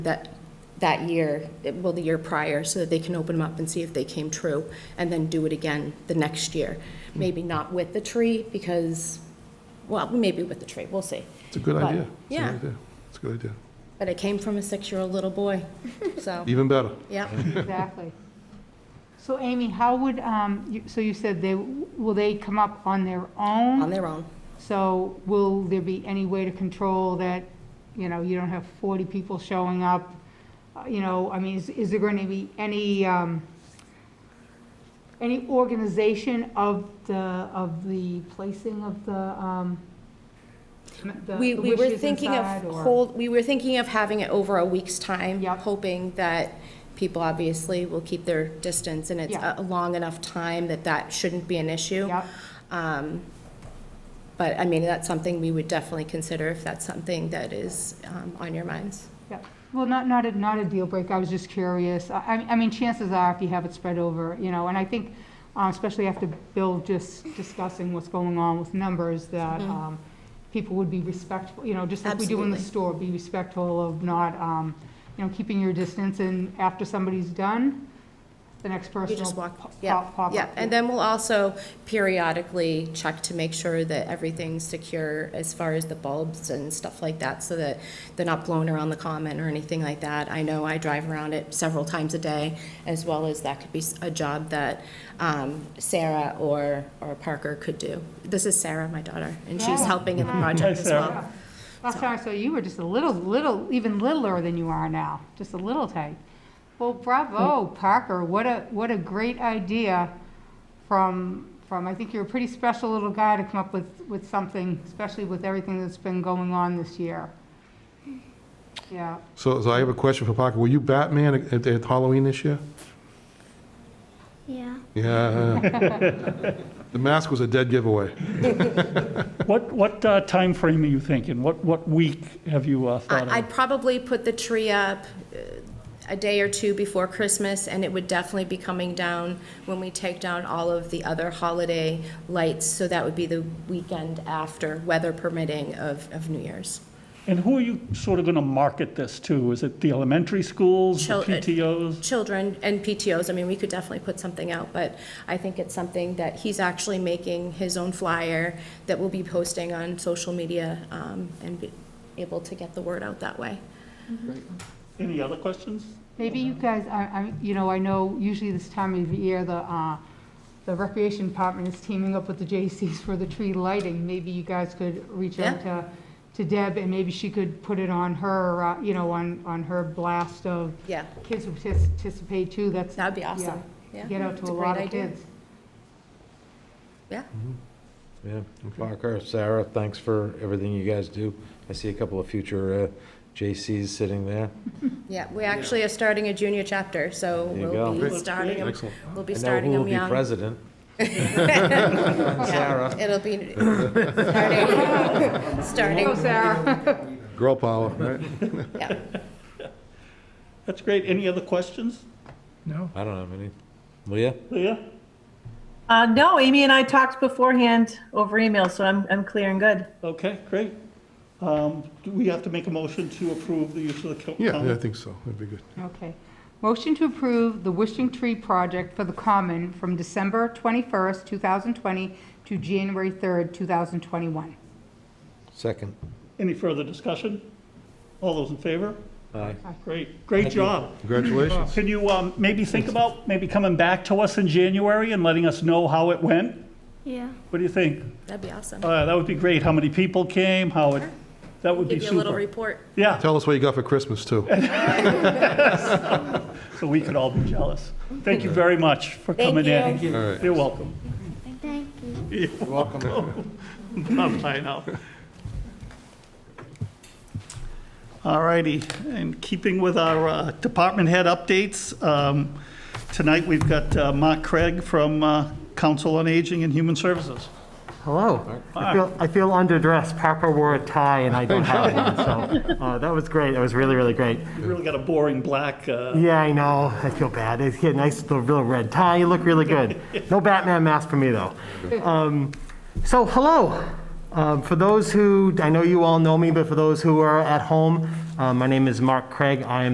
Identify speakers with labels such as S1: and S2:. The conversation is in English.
S1: that, that year, well, the year prior, so that they can open them up and see if they came true, and then do it again the next year. Maybe not with the tree, because, well, maybe with the tree, we'll see.
S2: It's a good
S1: But-
S2: idea. It's a good
S1: yeah.
S2: idea. It's a good idea.
S1: But it came from a six-year-old little boy, so,
S2: Even better.
S1: yeah.
S3: Exactly. So Amy, how would, um, you- so you said they, will they come up on their
S1: on
S3: own?
S1: their own.
S3: So will there be any way to control that, you know, you don't have 40 people showing up? Uh, You know, I mean, is is there going to be any, um, any organization of the, of the placing of the, um, the
S1: We,
S3: the
S1: we were
S3: wishes
S1: thinking of
S3: inside, or-
S1: hold, we were thinking of having it over a week's time,
S3: Yep.
S1: hoping that people obviously will keep their distance, and it's
S3: Yeah.
S1: a a long enough time that that shouldn't be an issue.
S3: Yep.
S1: Um, But, I mean, that's something we would definitely consider if that's something that is um, on your minds.
S3: Yeah, well, not, not a, not a deal breaker, I was just curious. I, I- I mean, chances are, if you have it spread over, you know, and I think, uh, especially after Bill just discussing what's going on with numbers, that
S1: Mm-hmm.
S3: um, people would be respectful, you know, just like we do in the
S1: Absolutely.
S3: store, be respectful of not, um, you know, keeping your distance, and after somebody's done, the next person
S1: You
S3: will
S1: just
S3: pop,
S1: walk, yeah,
S3: pop pop up.
S1: yeah. And then we'll also periodically check to make sure that everything's secure as far as the bulbs and stuff like that, so that they're not blown around the common or anything like that. I know I drive around it several times a day, as well as that could be s- a job that um, Sarah or, or Parker could do. This is Sarah, my daughter, and she's
S3: Yeah.
S1: helping in the project as well.
S3: Last time I saw you were just a little, little, even littler than you are now, just a little tight. Well, bravo, Parker, what a, what a great idea from, from, I think you're a pretty special little guy to come up with, with something, especially with everything that's been going on this year. Yeah,
S2: So, so I have a question for Parker. Were you Batman at, at Halloween this year?
S4: Yeah.
S2: Yeah. the mask was a dead giveaway.
S5: What, what uh, timeframe are you thinking? What, what week have you uh, thought
S1: I- I'd
S5: of?
S1: probably put the tree up uh, a day or two before Christmas, and it would definitely be coming down when we take down all of the other holiday lights, so that would be the weekend after, weather permitting, of, of New Year's.
S5: And who are you sort of going to market this to? Is it the elementary schools, the
S1: Children.
S5: PTOs?
S1: Children and PTOs, I mean, we could definitely put something out, but I think it's something that he's actually making his own flyer that we'll be posting on social media um, and be able to get the word out that way.
S5: Any other questions?
S3: maybe you guys, I, I, you know, I know usually this time of year, the, uh, the recreation department is teaming up with the J.C.'s for the tree lighting. Maybe you guys could reach out to, to Deb, and maybe she could put it on her, uh, you know, on, on her blast of
S1: Yeah,
S3: kids who partic- participate too, that's.
S1: that'd be awesome.
S3: yeah,
S1: Yeah,
S3: Get out
S1: it's
S3: to a
S1: great
S3: lot of
S1: idea.
S3: kids.
S1: Yeah.
S6: Yeah, Parker, Sarah, thanks for everything you guys do. I see a couple of future uh, JCs sitting there.
S1: Yeah, we actually are starting a junior chapter, so
S6: There you
S1: we'll
S6: go.
S1: be starting, 'em-
S2: Excellent.
S1: we'll be
S6: I know who
S1: starting
S6: will
S1: them
S6: be
S1: young.
S6: president.
S1: Yeah,
S6: Sarah.
S1: It'll be, starting, starting,
S3: Go, Sarah.
S2: Girl power, right?
S1: yeah.
S5: That's great. Any other questions?
S6: I don't have any. Leah?
S5: Leah?
S7: Uh, no, Amy and I talked beforehand over email, so I'm, I'm clear and good.
S5: Okay, great. Um, Do we have to make a motion to approve the use of the co-
S2: Yeah, yeah, I
S5: common?
S2: think so. That'd be good.
S3: Okay. Motion to approve the Wishing Tree project for the Common from December 21st, 2020 to January 3rd, 2021.
S6: Second.
S5: Any further discussion? All those in favor?
S6: Aye.
S5: Great, great job.
S2: Congratulations.
S5: Can you um, maybe think about maybe coming back to us in January and letting us know how it went?
S4: Yeah.
S5: What do you think?
S1: That'd be awesome.
S5: Uh, That would be great. How many people came, how it, that would be
S1: Give you a little
S5: super.
S1: report.
S5: Yeah.
S2: Tell us what you got for Christmas, too.
S5: so we could all be jealous. Thank you very much for coming in.
S1: Thank
S2: All right.
S5: You're welcome.
S4: Thank you.
S5: Bye now. All righty, in keeping with our uh, department head updates, um, tonight we've got uh, Mark Craig from uh, Council on Aging and Human Services.
S8: Hello. I feel, I feel underdressed. Papa wore a tie and I don't have one, so uh, that was great. That was really, really great.
S5: You really got a boring black, uh,
S8: Yeah, I know. I feel bad. He had a nice little, little red tie. You look really good. No Batman mask for me, though. Um, so, hello. Um, for those who, I know you all know me, but for those who are at home, uh, my name is Mark Craig. I am